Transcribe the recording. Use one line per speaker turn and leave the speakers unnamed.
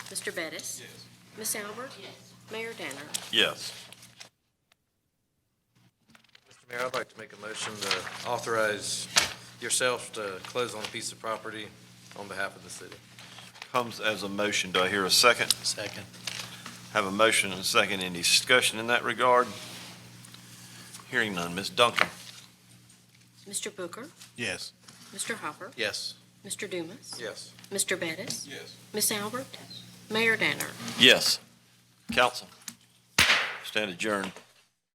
Mr. Bettis? Miss Ms. Albert? Mayor Danner?
Yes.
Mr. Mayor, I'd like to make a motion to authorize yourself to close on a piece of property on behalf of the city.
Comes as a motion. Do I hear a second?
Second.
Have a motion and a second. Any discussion in that regard? Hearing none. Ms. Duncan?
Mr. Booker?
Yes.
Mr. Hopper?
Yes.
Mr. Dumas?
Yes.
Mr. Bettis?
Yes.
Miss Albert? Mayor Danner?
Yes. Council. Stand adjourned.